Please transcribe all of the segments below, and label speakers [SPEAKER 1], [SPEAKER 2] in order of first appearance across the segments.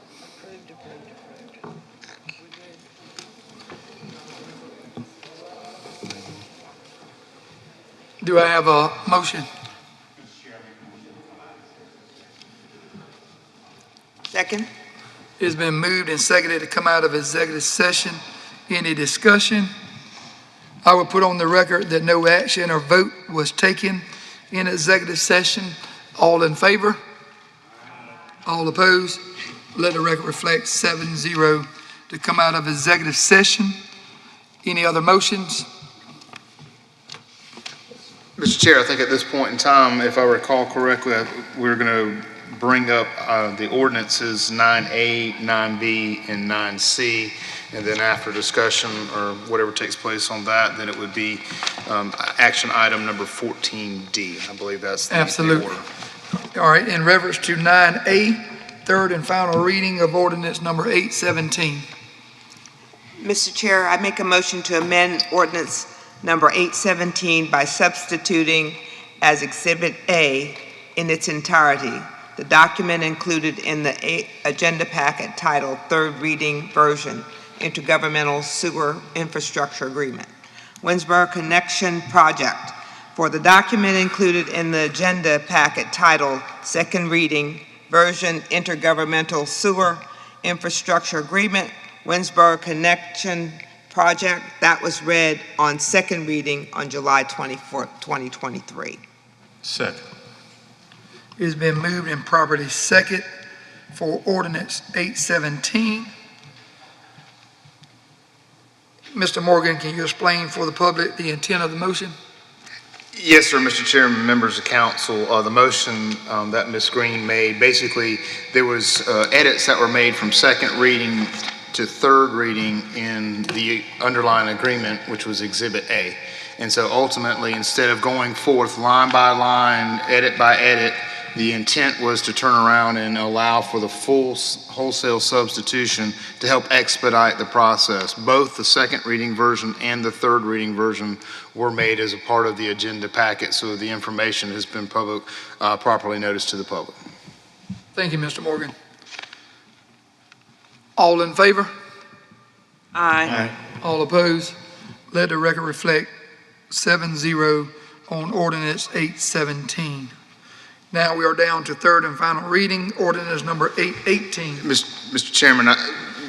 [SPEAKER 1] Approved, approved, approved. We're good.
[SPEAKER 2] Do I have a motion?
[SPEAKER 1] Second?
[SPEAKER 2] It's been moved and seconded to come out of executive session. Any discussion? I will put on the record that no action or vote was taken in executive session. All in favor? All opposed? Let the record reflect seven zero to come out of executive session. Any other motions?
[SPEAKER 3] Mr. Chair, I think at this point in time, if I recall correctly, I- we're going to bring up uh, the ordinances 9A, 9B, and 9C, and then after discussion or whatever takes place on that, then it would be um, a- action item number 14D. I believe that's the the order.
[SPEAKER 2] Absolutely. All right, in reference to nine A, third and final reading of ordinance number eight seventeen.
[SPEAKER 1] Mr. Chair, I make a motion to amend ordinance number 817 by substituting as Exhibit A in its entirety, the document included in the a- agenda packet titled Third Reading Version Intergovernmental Sewer Infrastructure Agreement, Winsboro Connection Project, for the document included in the agenda packet titled Second Reading Version Intergovernmental Sewer Infrastructure Agreement, Winsboro Connection Project that was read on second reading on July 24th, 2023.
[SPEAKER 4] Second.
[SPEAKER 2] It's been moved and properly second for ordinance eight seventeen. Mr. Morgan, can you explain for the public the intent of the motion?
[SPEAKER 3] Yes, sir, Mr. Chairman, members of council. Uh, The motion um, that Ms. Green made, basically, there was uh, edits that were made from second reading to third reading in the underlying agreement, which was Exhibit A. And so ultimately, instead of going forth line by line, edit by edit, the intent was to turn around and allow for the full s- wholesale substitution to help expedite the process. Both the second reading version and the third reading version were made as a part of the agenda packet, so the information has been public, uh, properly noticed to the public.
[SPEAKER 2] Thank you, Mr. Morgan. All in favor?
[SPEAKER 1] Aye.
[SPEAKER 2] All opposed? Let the record reflect seven zero on ordinance eight seventeen. Now we are down to third and final reading, ordinance number eight eighteen.
[SPEAKER 3] Mis- Mr. Chairman, I-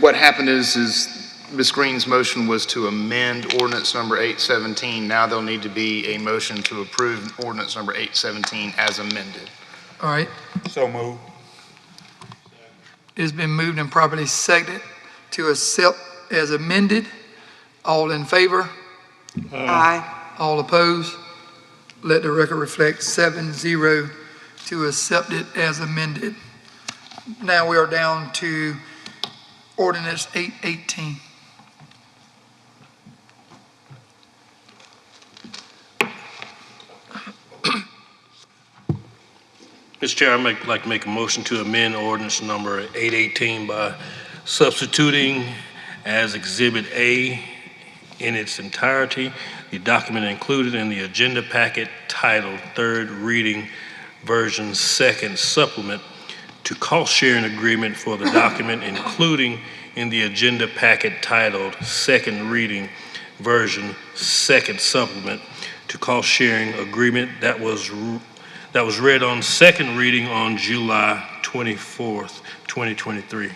[SPEAKER 3] what happened is, is Ms. Green's motion was to amend ordinance number 817. Now there'll need to be a motion to approve ordinance number 817 as amended.
[SPEAKER 2] All right,
[SPEAKER 4] So moved.
[SPEAKER 2] It's been moved and properly seconded to accept as amended. All in favor?
[SPEAKER 1] Aye.
[SPEAKER 2] All opposed? Let the record reflect seven zero to accept it as amended. Now we are down to ordinance eight eighteen.
[SPEAKER 5] Mr. Chair, I'd make- like to make a motion to amend ordinance number 818 by substituting as Exhibit A in its entirety, the document included in the agenda packet titled Third Reading Version Second Supplement to cost sharing agreement for the document including in the agenda packet titled Second Reading Version Second Supplement to cost sharing agreement that was ru- that was read on second reading on July 24th, 2023.